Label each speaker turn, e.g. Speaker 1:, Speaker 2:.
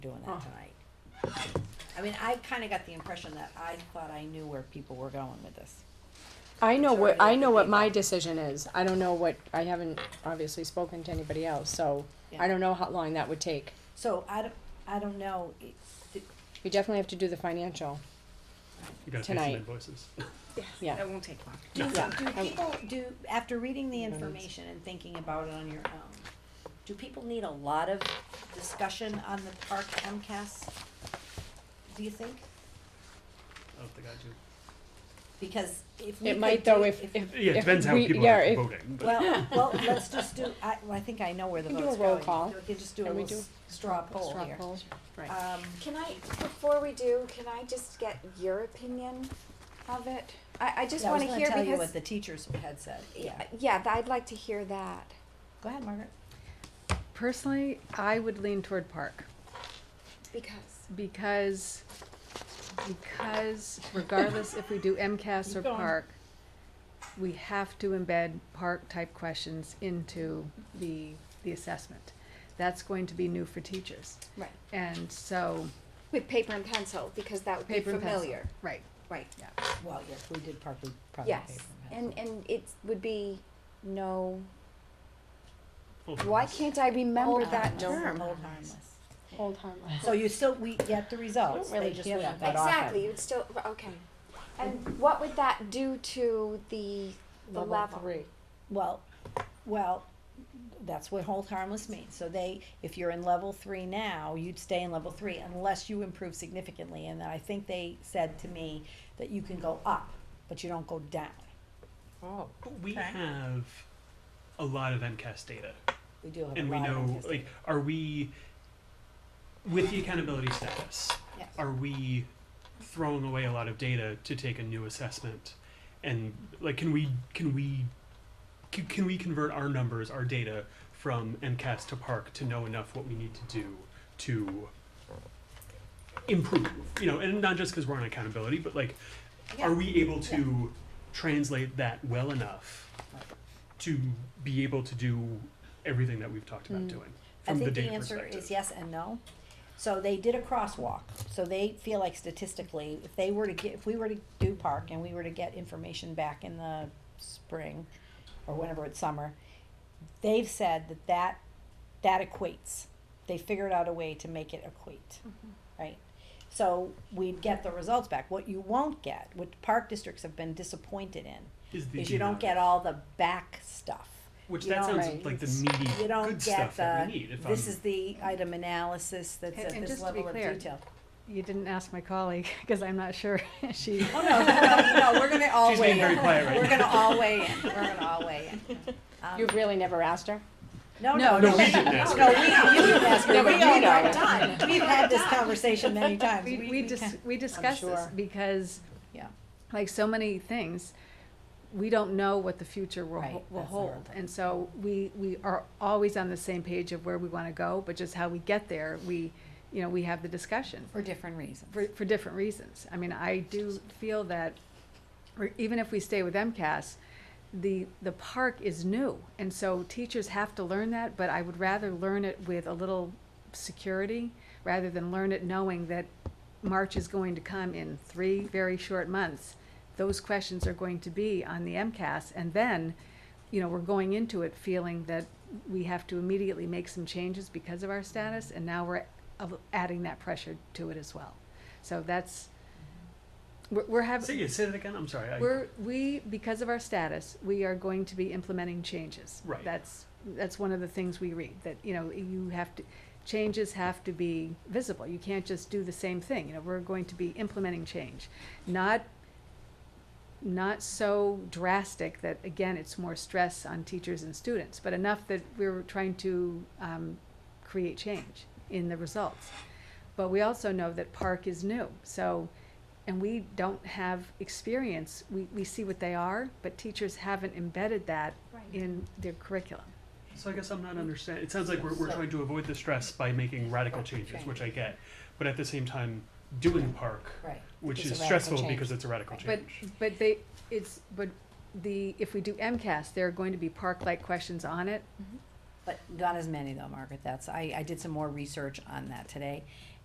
Speaker 1: doing that tonight. I mean, I kinda got the impression that I thought I knew where people were going with this.
Speaker 2: I know
Speaker 1: Sorry,
Speaker 2: what, I know what my
Speaker 1: people.
Speaker 2: decision is, I don't know what, I haven't obviously spoken to anybody else, so
Speaker 1: Yeah.
Speaker 2: I don't know how long that would take.
Speaker 1: So I don't, I don't know, it, th-
Speaker 2: We definitely have to do the financial,
Speaker 3: You gotta pay some
Speaker 2: Tonight.
Speaker 3: invoices.
Speaker 2: yeah,
Speaker 4: That won't take long.
Speaker 1: do,
Speaker 2: Yeah.
Speaker 1: do
Speaker 2: I-
Speaker 1: people, do, after reading the
Speaker 2: don't need-
Speaker 1: information and thinking about it on your own, do people need a lot of discussion on the park MCAS? Do you think?
Speaker 3: I don't think I
Speaker 1: Because if we
Speaker 2: it
Speaker 1: could
Speaker 2: might though
Speaker 1: do-
Speaker 2: if, if.
Speaker 3: do. Yeah, it depends how
Speaker 2: we-
Speaker 3: people
Speaker 2: yeah,
Speaker 3: are
Speaker 2: if-
Speaker 3: voting, but
Speaker 1: Well, well, let's just do, I, well, I think I know where the
Speaker 2: We can do
Speaker 1: vote's
Speaker 2: a roll
Speaker 1: going.
Speaker 2: call.
Speaker 1: We can just do a
Speaker 2: And we
Speaker 1: little
Speaker 2: do-
Speaker 1: s- straw poll
Speaker 2: Straw
Speaker 1: here.
Speaker 2: poll, right.
Speaker 1: Um,
Speaker 5: Can I, before we do, can I just get your opinion of it? I, I just
Speaker 1: yeah, I was
Speaker 5: wanna
Speaker 1: gonna
Speaker 5: hear
Speaker 1: tell you
Speaker 5: because,
Speaker 1: what the teachers had said, yeah.
Speaker 5: yeah, yeah, th- I'd like to hear that.
Speaker 1: Go ahead, Margaret.
Speaker 6: Personally, I would lean toward park
Speaker 5: Because,
Speaker 6: because because regardless if we do MCAS or
Speaker 2: Keep going.
Speaker 6: park, we have to embed park type questions into the the assessment. That's going to be new for teachers.
Speaker 5: right,
Speaker 6: And so
Speaker 5: with paper and pencil, because that would be
Speaker 6: paper and pencil.
Speaker 5: familiar,
Speaker 6: Right.
Speaker 5: right,
Speaker 1: Well, yes, we did partly, probably
Speaker 5: yes.
Speaker 1: paper and pencil.
Speaker 5: And, and it would be, no,
Speaker 3: Hold on,
Speaker 5: why
Speaker 3: let's-
Speaker 5: can't I remember that
Speaker 1: Uh, Don't
Speaker 5: term?
Speaker 1: hold harmless.
Speaker 2: Hold harmless.
Speaker 1: So you still, we get the results,
Speaker 2: really
Speaker 1: they just
Speaker 2: hear
Speaker 1: went
Speaker 2: that
Speaker 1: that
Speaker 5: Exactly, you'd still, okay. And what would that do to the, the level?
Speaker 2: three.
Speaker 1: Well, well, that's what hold harmless means, so they, if you're in level three now, you'd stay in level three unless you improve significantly, and I think they said to me that you can go up, but you don't go down.
Speaker 2: Oh.
Speaker 3: We have a lot of MCAS data,
Speaker 1: We do have a
Speaker 3: and we
Speaker 1: lot of
Speaker 3: know,
Speaker 1: autistic.
Speaker 3: like, are we, with the accountability status,
Speaker 1: Yes.
Speaker 3: are we throwing away a lot of data to take a new assessment? And like, can we, can we, can, can we convert our numbers, our data from MCAS to Park to know enough what we need to do to improve? You know, and not just because we're on accountability, but like, are we able to translate that well enough to be able to do everything that we've talked about doing
Speaker 1: Mm. I
Speaker 3: from the
Speaker 1: think the
Speaker 3: data
Speaker 1: answer
Speaker 3: perspective?
Speaker 1: is yes and no. So they did a crosswalk, so they feel like statistically, if they were to get, if we were to do park and we were to get information back in the spring or whenever it's summer, they've said that that, that equates. They figured out a way to make it equate, right? So we'd get the results back. What you won't get, what park districts have been disappointed in,
Speaker 3: Is the
Speaker 1: is you don't
Speaker 3: DNR,
Speaker 1: get all the back stuff
Speaker 3: Which
Speaker 1: you
Speaker 3: that
Speaker 1: don't-
Speaker 3: sounds
Speaker 2: Right.
Speaker 3: like the meaty
Speaker 1: you don't
Speaker 3: good
Speaker 1: get
Speaker 3: stuff that we
Speaker 1: the,
Speaker 3: need. If
Speaker 1: this
Speaker 3: I'm,
Speaker 1: is the item analysis that's
Speaker 6: And-
Speaker 1: at
Speaker 6: and
Speaker 1: this
Speaker 6: just to be
Speaker 1: level of
Speaker 6: clear,
Speaker 1: detail.
Speaker 6: You didn't ask my colleague because I'm not sure she
Speaker 1: Oh, no, no, no, we're gonna all
Speaker 3: She's
Speaker 1: weigh
Speaker 3: being very
Speaker 1: in,
Speaker 3: quiet right
Speaker 1: we're
Speaker 3: now.
Speaker 1: gonna all weigh in, we're gonna all weigh in. Um,
Speaker 2: You've really never asked her?
Speaker 1: No,
Speaker 6: No,
Speaker 1: no,
Speaker 6: no,
Speaker 1: no,
Speaker 3: we
Speaker 1: we,
Speaker 3: didn't ask
Speaker 1: no, we, you didn't ask, her.
Speaker 2: No,
Speaker 1: we
Speaker 2: but you
Speaker 1: all
Speaker 2: know.
Speaker 1: know, time, we've had this conversation many times,
Speaker 6: we, we, dis-
Speaker 1: can't-
Speaker 6: we discussed this
Speaker 2: sure.
Speaker 6: because
Speaker 1: Yeah.
Speaker 6: like so many things we don't know what the future will,
Speaker 1: Right,
Speaker 6: ho- will
Speaker 1: that's the hard
Speaker 6: hold
Speaker 1: part.
Speaker 6: and so we we are always on the same page of where we want to go but just how we get there we you know we have the discussion
Speaker 1: For different reasons.
Speaker 6: for, for different reasons i mean i do feel that or even if we stay with mcas the the park is new and so teachers have to learn that but i would rather learn it with a little security rather than learn it knowing that march is going to come in three very short months those questions are going to be on the mcas and then you know we're going into it feeling that we have to immediately make some changes because of our status and now we're of- adding that pressure to it as well so that's we're, we're having
Speaker 3: say, yeah, say that again. I'm sorry. I,
Speaker 6: we're, we, because of our status, we are going to be implementing changes.
Speaker 3: Right.
Speaker 6: That's, that's one of the things we read, that, you know, you have to, changes have to be visible. You can't just do the same thing, you know, we're going to be implementing change. Not, not so drastic that, again, it's more stress on teachers and students, but enough that we're trying to, um, create change in the results. But we also know that Park is new, so, and we don't have experience, we, we see what they are, but teachers haven't embedded that in their curriculum.
Speaker 3: so I guess I'm not understanding. It sounds like we're, we're
Speaker 1: So-
Speaker 3: trying to avoid the stress by making radical changes, which I get, but at the same time, doing park,
Speaker 1: Right.
Speaker 3: which
Speaker 2: It's a
Speaker 3: is
Speaker 2: radical
Speaker 3: stressful
Speaker 2: change.
Speaker 3: because it's a radical
Speaker 6: But,
Speaker 3: change.
Speaker 6: but they, it's, but the, if we do MCAS, there are going to be park-like questions on it.
Speaker 1: But not as many though, Margaret, that's, I, I did some more research on that today.